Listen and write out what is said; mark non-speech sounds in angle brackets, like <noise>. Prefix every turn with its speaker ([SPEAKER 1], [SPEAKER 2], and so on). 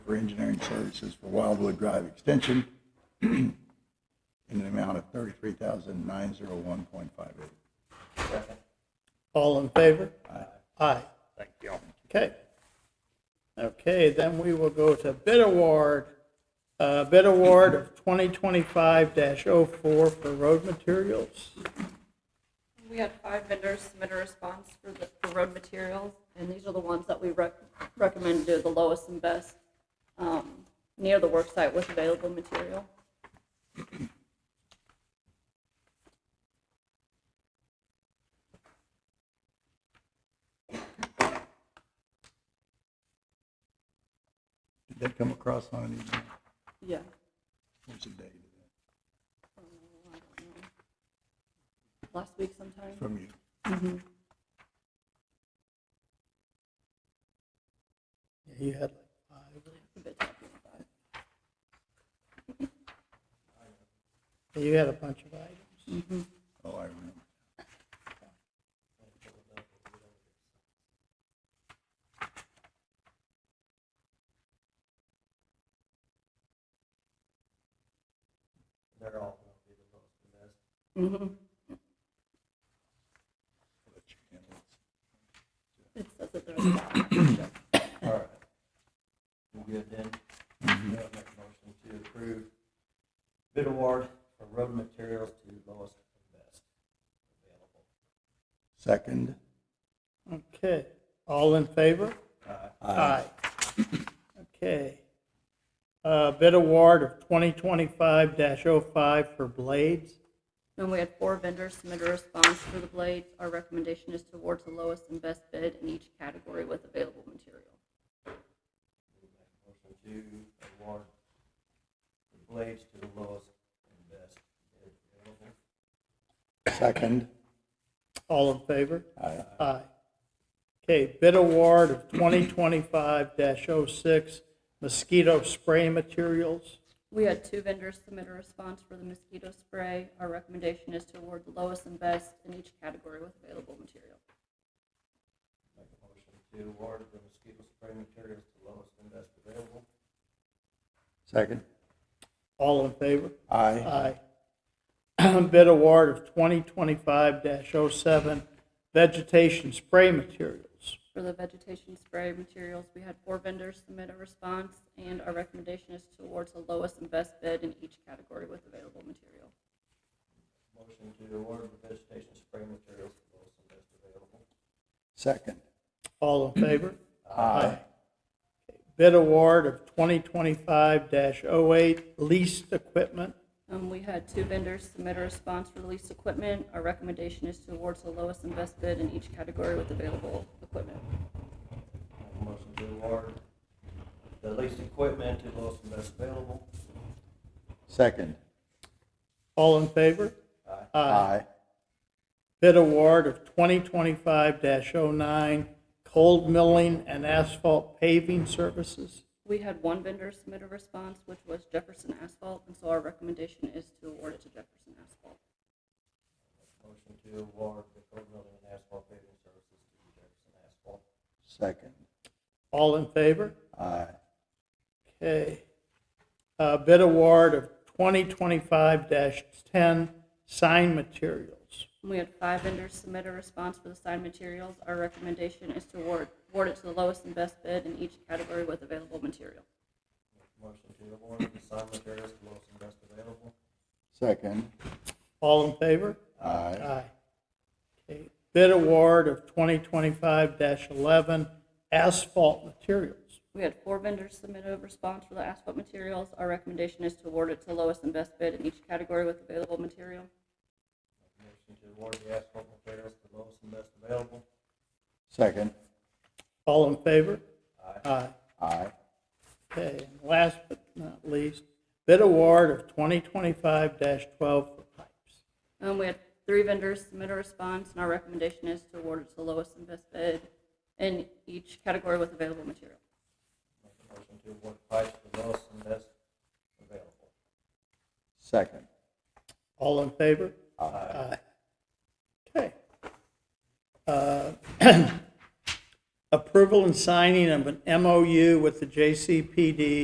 [SPEAKER 1] for engineering services for Wildwood Drive Extension in an amount of thirty-three thousand nine zero one point five eight.
[SPEAKER 2] All in favor? Aye. Aye.
[SPEAKER 3] Thank you.
[SPEAKER 2] Okay. Okay, then we will go to bid award, uh, bid award of 2025-04 for road materials.
[SPEAKER 4] We had five vendors submit a response for the, for road materials, and these are the ones that we rec- recommend do the lowest and best, um, near the work site with available material.
[SPEAKER 1] Did that come across on an email?
[SPEAKER 4] Yeah.
[SPEAKER 1] What's the date of
[SPEAKER 4] Last week
[SPEAKER 1] that
[SPEAKER 4] sometime.
[SPEAKER 1] from you?
[SPEAKER 2] You had like
[SPEAKER 4] A bit tough.
[SPEAKER 2] five, you had a bunch of items.
[SPEAKER 1] Oh, I remember.
[SPEAKER 4] Mm-hmm.
[SPEAKER 1] Let you handle it.
[SPEAKER 4] It says that there's a lot.
[SPEAKER 5] All right. We good then? Yeah, I'll make a motion to approve bid award for road materials to lowest and best available.
[SPEAKER 1] Second,
[SPEAKER 2] Okay, all in favor?
[SPEAKER 5] Uh,
[SPEAKER 2] Aye. Okay. Uh, Bid award of 2025-05 for blades.
[SPEAKER 4] And we had four vendors submit a response for the blades. Our recommendation is to award the lowest and best bid in each category with available material.
[SPEAKER 5] Motion to award the blades to the lowest and best bid available.
[SPEAKER 1] second.
[SPEAKER 2] All in favor?
[SPEAKER 1] Aye.
[SPEAKER 2] Aye. Okay, bid award of 2025-06 mosquito spray materials.
[SPEAKER 4] We had two vendors submit a response for the mosquito spray. Our recommendation is to award the lowest and best in each category with available material.
[SPEAKER 5] Make a motion to award the mosquito spray materials to lowest and best available.
[SPEAKER 1] Second.
[SPEAKER 2] All in favor?
[SPEAKER 1] Aye.
[SPEAKER 2] Aye. <clears throat> Bid award of 2025-07 vegetation spray materials.
[SPEAKER 4] For the vegetation spray materials, we had four vendors submit a response, and our recommendation is to award the lowest and best bid in each category with available material.
[SPEAKER 5] Motion to award the vegetation spray materials to lowest and best available.
[SPEAKER 1] Second.
[SPEAKER 2] All in favor?
[SPEAKER 1] <clears throat> Aye.
[SPEAKER 2] Bid award of 2025-08 leased equipment.
[SPEAKER 4] Um, we had two vendors submit a response for the leased equipment. Our recommendation is to award the lowest and best bid in each category with available equipment.
[SPEAKER 5] Make a Motion to award the leased equipment to lowest and best available.
[SPEAKER 1] Second.
[SPEAKER 2] All in favor?
[SPEAKER 5] Aye.
[SPEAKER 1] Aye.
[SPEAKER 2] Bid award of 2025-09 cold milling and asphalt paving services.
[SPEAKER 4] We had one vendor submit a response, which was Jefferson Asphalt, and so our recommendation is to award it to Jefferson Asphalt.
[SPEAKER 5] Motion to award the cold milling and asphalt paving services to Jefferson Asphalt.
[SPEAKER 1] Second.
[SPEAKER 2] All in favor?
[SPEAKER 1] Aye.
[SPEAKER 2] Okay. Uh, Bid award of 2025-10 sign materials.
[SPEAKER 4] We had five vendors submit a response for the signed materials. Our recommendation is to award, award it to the lowest and best bid in each category with available material.
[SPEAKER 5] Motion to award the sign materials to lowest and best available.
[SPEAKER 1] Second.
[SPEAKER 2] All in favor?
[SPEAKER 1] Aye.
[SPEAKER 2] Aye. Okay. Bid award of 2025-11 asphalt materials.
[SPEAKER 4] We had four vendors submit a response for the asphalt materials. Our recommendation is to award it to the lowest and best bid in each category with available material.
[SPEAKER 5] Motion to award the asphalt materials to lowest and best available.
[SPEAKER 1] Second.
[SPEAKER 2] All in favor?
[SPEAKER 5] Aye.
[SPEAKER 2] Aye.
[SPEAKER 1] Aye.
[SPEAKER 2] Okay, and last but not least, bid award of 2025-12 for pipes.
[SPEAKER 4] Um, we had three vendors submit a response, and our recommendation is to award it to the lowest and best bid in each category with available material.
[SPEAKER 5] Make a motion to award pipes to lowest and best available.
[SPEAKER 1] Second.
[SPEAKER 2] All in favor?
[SPEAKER 5] Aye.
[SPEAKER 2] Aye. Okay. Uh, <clears throat> Approval and signing of an MOU with the JCPD